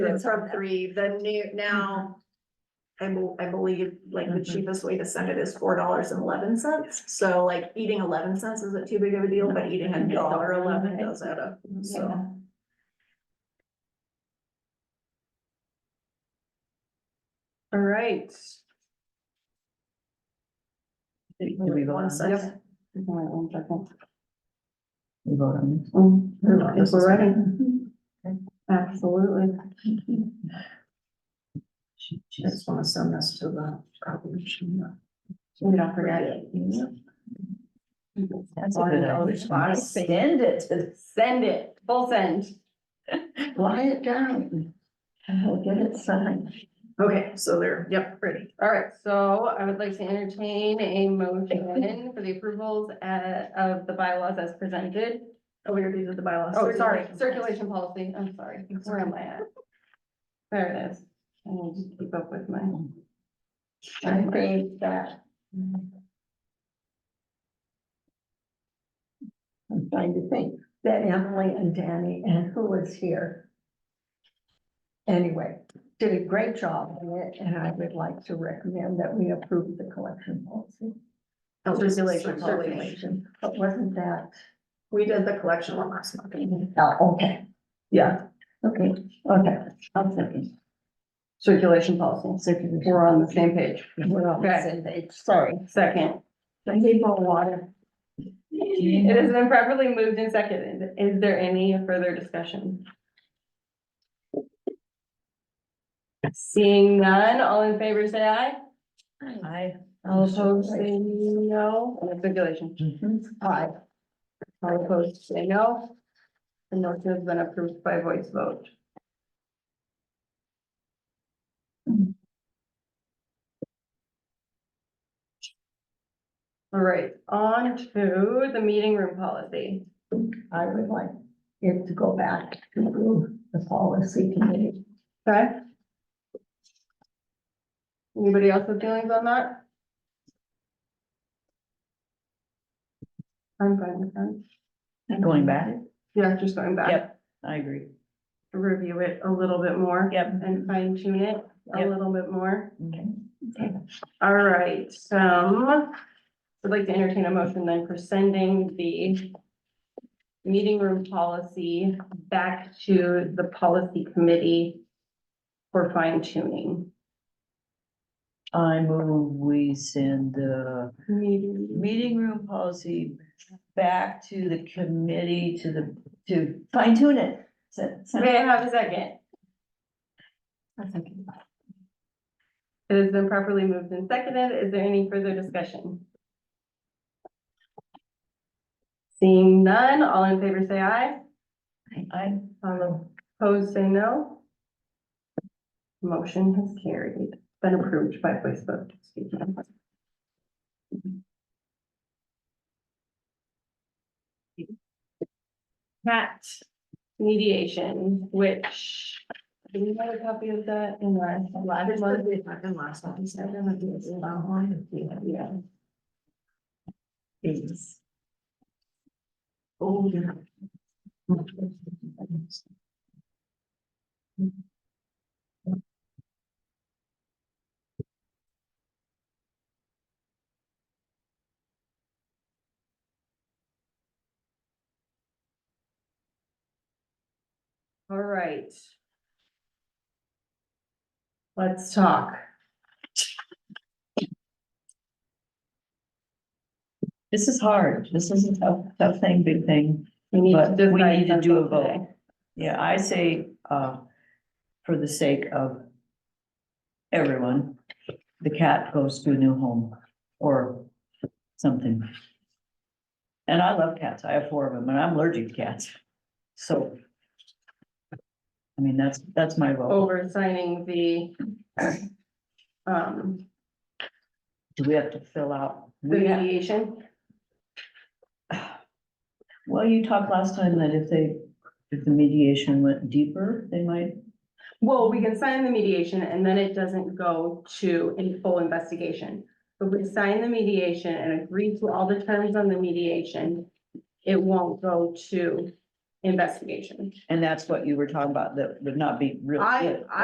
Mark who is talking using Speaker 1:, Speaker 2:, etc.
Speaker 1: it
Speaker 2: was
Speaker 1: from
Speaker 2: on that. Mm-hmm.
Speaker 1: three, the new, now. I bel- I believe like the
Speaker 2: Mhm.
Speaker 1: cheapest way to send it is four dollars and eleven cents, so like eating eleven cents isn't too big of a deal, but eating a
Speaker 2: Mhm.
Speaker 1: dollar eleven does add up,
Speaker 2: Yeah.
Speaker 1: so.
Speaker 2: All right. Did did we vote
Speaker 1: One
Speaker 2: on
Speaker 1: second.
Speaker 2: this?
Speaker 3: We vote on this.
Speaker 2: Um, If
Speaker 1: This is-
Speaker 2: we're ready. Absolutely.
Speaker 3: She just wanna send this to the.
Speaker 2: We don't forget.
Speaker 3: That's
Speaker 2: Why don't we just Send it, to- send it, full send.
Speaker 3: Why it down? And we'll get it signed.
Speaker 1: Okay, so they're, yep, ready.
Speaker 2: All right, so I would like to entertain a motion for the approvals uh of the bylaws as presented.
Speaker 1: Oh, we already did the bylaws.
Speaker 2: Oh, sorry, circulation policy, I'm sorry, where am I at? There it is. I need to keep up with my. I think that.
Speaker 3: I'm trying to think that Emily and Danny and who was here. Anyway, did a great job on it and I would like to recommend that we approve the collection policy.
Speaker 1: Oh,
Speaker 2: Circulation
Speaker 1: circulation.
Speaker 2: policy.
Speaker 3: Circulation, But wasn't that,
Speaker 1: We did the collection one last month.
Speaker 3: oh, okay,
Speaker 2: Yeah,
Speaker 3: okay, okay, I'll second.
Speaker 2: circulation policy,
Speaker 3: Circulation.
Speaker 2: we're on the same page.
Speaker 3: We're on the
Speaker 2: Okay.
Speaker 3: same page, sorry.
Speaker 2: Second.
Speaker 3: Thank you for water.
Speaker 2: It has been properly moved and seconded. Is there any further discussion? Seeing none, all in favor say aye.
Speaker 3: Aye.
Speaker 2: All opposed say no. And the circulation.
Speaker 3: Mm-hmm.
Speaker 2: Aye. All opposed say no. The motion has been approved by voice vote. All right, on to the meeting room policy.
Speaker 3: I would like it to go back to the policy committee.
Speaker 2: Okay. Anybody else with feelings on that? I'm fine with that.
Speaker 4: Going back?
Speaker 2: Yeah, just going back,
Speaker 4: Yep, I agree.
Speaker 2: review it a little bit more.
Speaker 4: Yep.
Speaker 2: And fine tune it a
Speaker 4: Yep.
Speaker 2: little bit more.
Speaker 4: Okay.
Speaker 2: All right, um, I'd like to entertain a motion then for sending the meeting room policy back to the policy committee for fine tuning.
Speaker 4: I move we send the
Speaker 2: Meeting
Speaker 4: meeting room policy back to the committee to the, to fine tune it. Send- send-
Speaker 2: May I have a second? It has been properly moved and seconded. Is there any further discussion? Seeing none, all in favor say aye.
Speaker 4: I,
Speaker 2: All opposed say no. Motion has carried, been approved by voice vote. Excuse me. Cat mediation, which, do we have a copy of that in our last
Speaker 1: There's
Speaker 2: one?
Speaker 1: one we had in last month, so I'm gonna do it in that one.
Speaker 2: Yeah.
Speaker 1: Yes. Oh, yeah.
Speaker 2: All right. Let's talk.
Speaker 4: this is hard. This is a tough, tough thing, big thing.
Speaker 2: We need to
Speaker 4: But we
Speaker 2: decide
Speaker 4: need to do a
Speaker 2: something today.
Speaker 4: vote. Yeah, I say, uh, for the sake of everyone, the cat goes to a new home or something. And I love cats. I have four of them and I'm allergic to cats. So I mean, that's, that's my vote.
Speaker 2: Over signing the um,
Speaker 4: Do we have to fill out?
Speaker 2: the
Speaker 4: We have-
Speaker 2: mediation.
Speaker 4: Well, you talked last time that if they, if the mediation went deeper, they might,
Speaker 2: Well, we can sign the mediation and then it doesn't go to a full investigation. But we sign the mediation and agree to all the terms on the mediation. It won't go to investigation.
Speaker 4: And that's what you were talking about, that would not be real.
Speaker 3: I-
Speaker 4: good.